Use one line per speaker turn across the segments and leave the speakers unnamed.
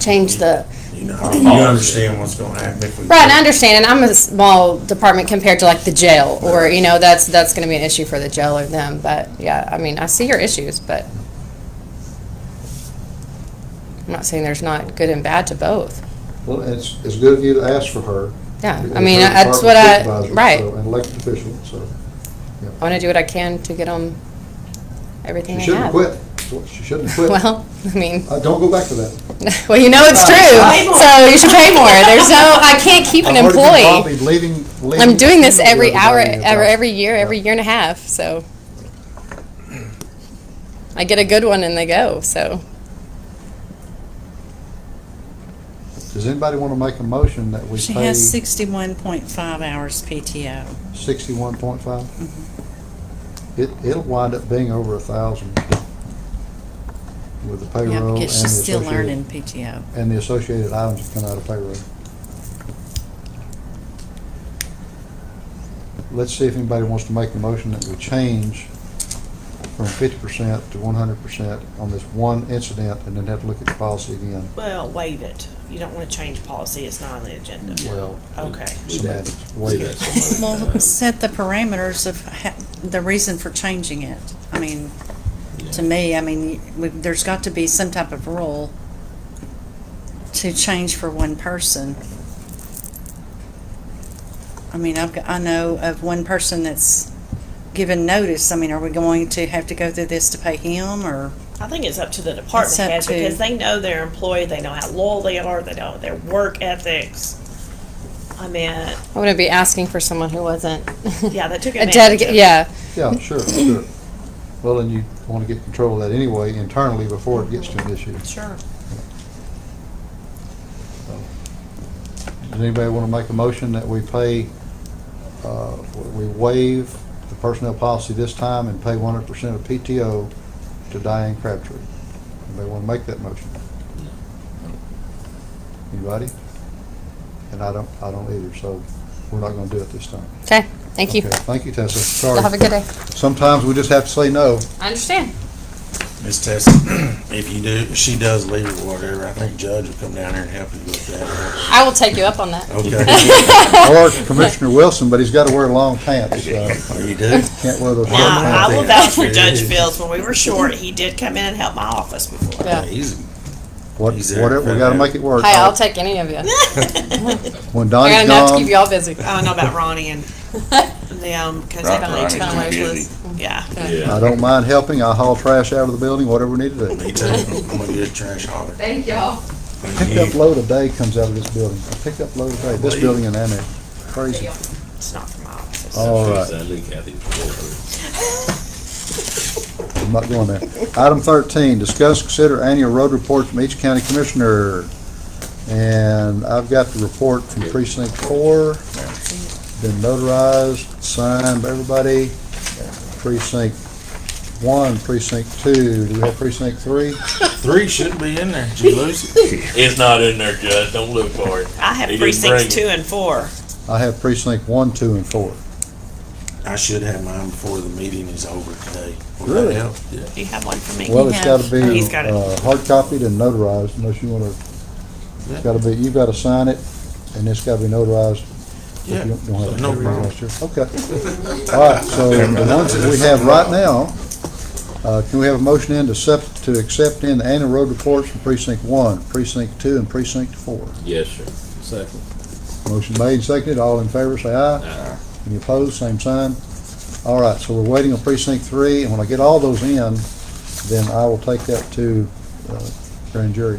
change the,
You know, you understand what's gonna happen. if we-
right, and I understand, and I'm a small department compared to like the jail, or, you know, that's, that's gonna be an issue for the jail or them, but, yeah, I mean, I see your issues, but I'm not saying there's not good and bad to both,
Well, it's, it's good of you to ask for her.
yeah,
It's
I mean,
her
that's
department
what I, right,
supervisor, so, An elected official, so.
I wanna do what I can to get them everything
She
I
shouldn't have
have.
quit. She shouldn't have quit.
Well, I mean.
Uh, Don't go back to that.
Well, you know it's true, so you should pay more. There's no, I can't keep an
I've already been
employee.
copied Leaving, leaving.
I'm doing this every
Yeah,
hour,
yeah.
every, every year, every year and a half, so. I get a good one and they go, so.
Does anybody want to make a motion that we
She
pay
has sixty-one point five hours PTO.
sixty-one point five?
Mm-hmm.
It, it'll wind up being over a thousand with the
Yeah,
payroll and the
because she's still
associated,
learning PTO.
and the associated items that come out of payroll. Let's see if anybody wants to make the motion that we change from fifty percent to one hundred percent on this one incident and then have to look at the policy again.
Well, waive it. You don't want to change policy. It's not on the agenda.
Well,
Okay.
semantics, way back.
Well, set the parameters of ha- the reason for changing it. I mean, to me, I mean, we- there's got to be some type of rule to change for one person. I mean, I've, got- I know of one person that's given notice. I mean, are we going to have to go through this to pay him or?
I think it's up to the
It's
department
up
head
to-
because they know their employee, they know how loyal they are, they know their work ethics. I mean,
I wouldn't be asking for someone who wasn't.
yeah, that took
A
advantage of
dedicated,
it.
yeah,
Yeah, sure, sure. Well, and you want to get control of that anyway internally before it gets to an issue.
Sure.
Does anybody want to make a motion that we pay, uh, we waive the personnel policy this time and pay one hundred percent of PTO to Diane Crabtree? Anybody want to make that motion? Anybody? And I don't, I don't either, so we're not going to do it this time.
okay, thank you.
Okay, Thank you, Tessa.
Y'all have a
Sorry.
good day.
Sometimes we just have to say no.
I understand.
Miss Tess, if you do, if she does leave or whatever, I think Judge will come down here and help you with that.
I will take you up on that.
Okay.
Or Commissioner Wilson, but he's got to wear long pants, so
Oh, You do?
can't wear those short
Now, I
pants.
will vouch for Judge Fields. When we were short, he did come in and help my office before.
Yeah.
Easy.
What,
He's there.
whatever, we got to make it work.
Hey, I'll take any of you.
When
I got
Donnie's
enough to
gone,
keep y'all busy.
I don't know about Ronnie and them because they
Right,
played too much
Ronnie's too
with, yeah.
I don't mind helping. I haul trash out of the building, whatever we need to do.
Me too. I'm gonna get a trash hauler.
Thank y'all.
Pickup load a day comes out of this building. A Pickup load a day, this building and annex. Crazy.
It's not from my office.
All right, I'm not going there. Item thirteen, discuss, consider annual road report from each county commissioner. And I've got the report from precinct four, been notarized, signed by everybody. Precinct one, precinct two, do we have precinct three?
Three shouldn't be in there. Did you lose it?
It's not in there, Judge. Don't look for it.
I have
He didn't bring it.
precincts two and four.
I have precinct one, two, and four.
I should have mine before the meeting is over today. Would that
Really?
help? Yeah.
Do you have one for me?
Well, it's gotta be,
He's got it.
uh, hard copied and notarized unless you wanna, it's gotta be, you gotta sign it and it's gotta be notarized. if you
Yeah.
don't- don't have a
No
copy,
problem.
that's your- Okay. All right, so the ones that we have right now, uh, can we have a motion in to accept, to accept in the annual road reports from precinct one, precinct two, and precinct four?
Yes, sir.
Second.
Motion made, and seconded, all in favor, say aye.
Aye.
Any opposed, same sign. All right, so we're waiting on precinct three, and when I get all those in, then I will take that to uh, grand jury.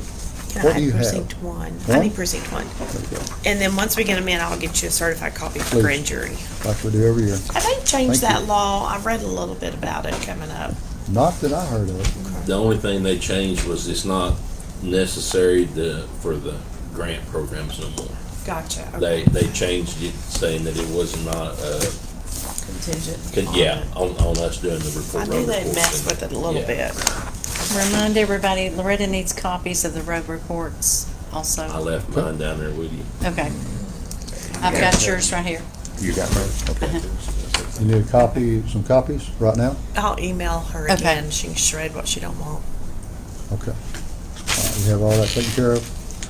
Can
What
I
do you have?
precinct one? I
One?
need precinct one.
Okay.
And then once we get them in, I'll get you a certified copy for
Please.
grand jury.
like we do every year.
Have they
Thank
changed that
you.
law? I read a little bit about it coming up.
Not that I heard of.
The only thing they changed was it's not necessary to, for the grant programs no more.
Gotcha.
They, they changed it saying that it was not, uh,
Contingent.
con- yeah, on, on us doing the
I
report.
knew
road
they
reports
messed
and-
with it a little
yeah.
bit.
Remind everybody, Loretta needs copies of the road reports
I
also.
left mine down there with you.
Okay. I've got yours right here.
You got me.
You need a copy, some copies right now?
I'll email her
Okay.
again. She can shred what she don't want.
Okay. All right, We have all that taken care of.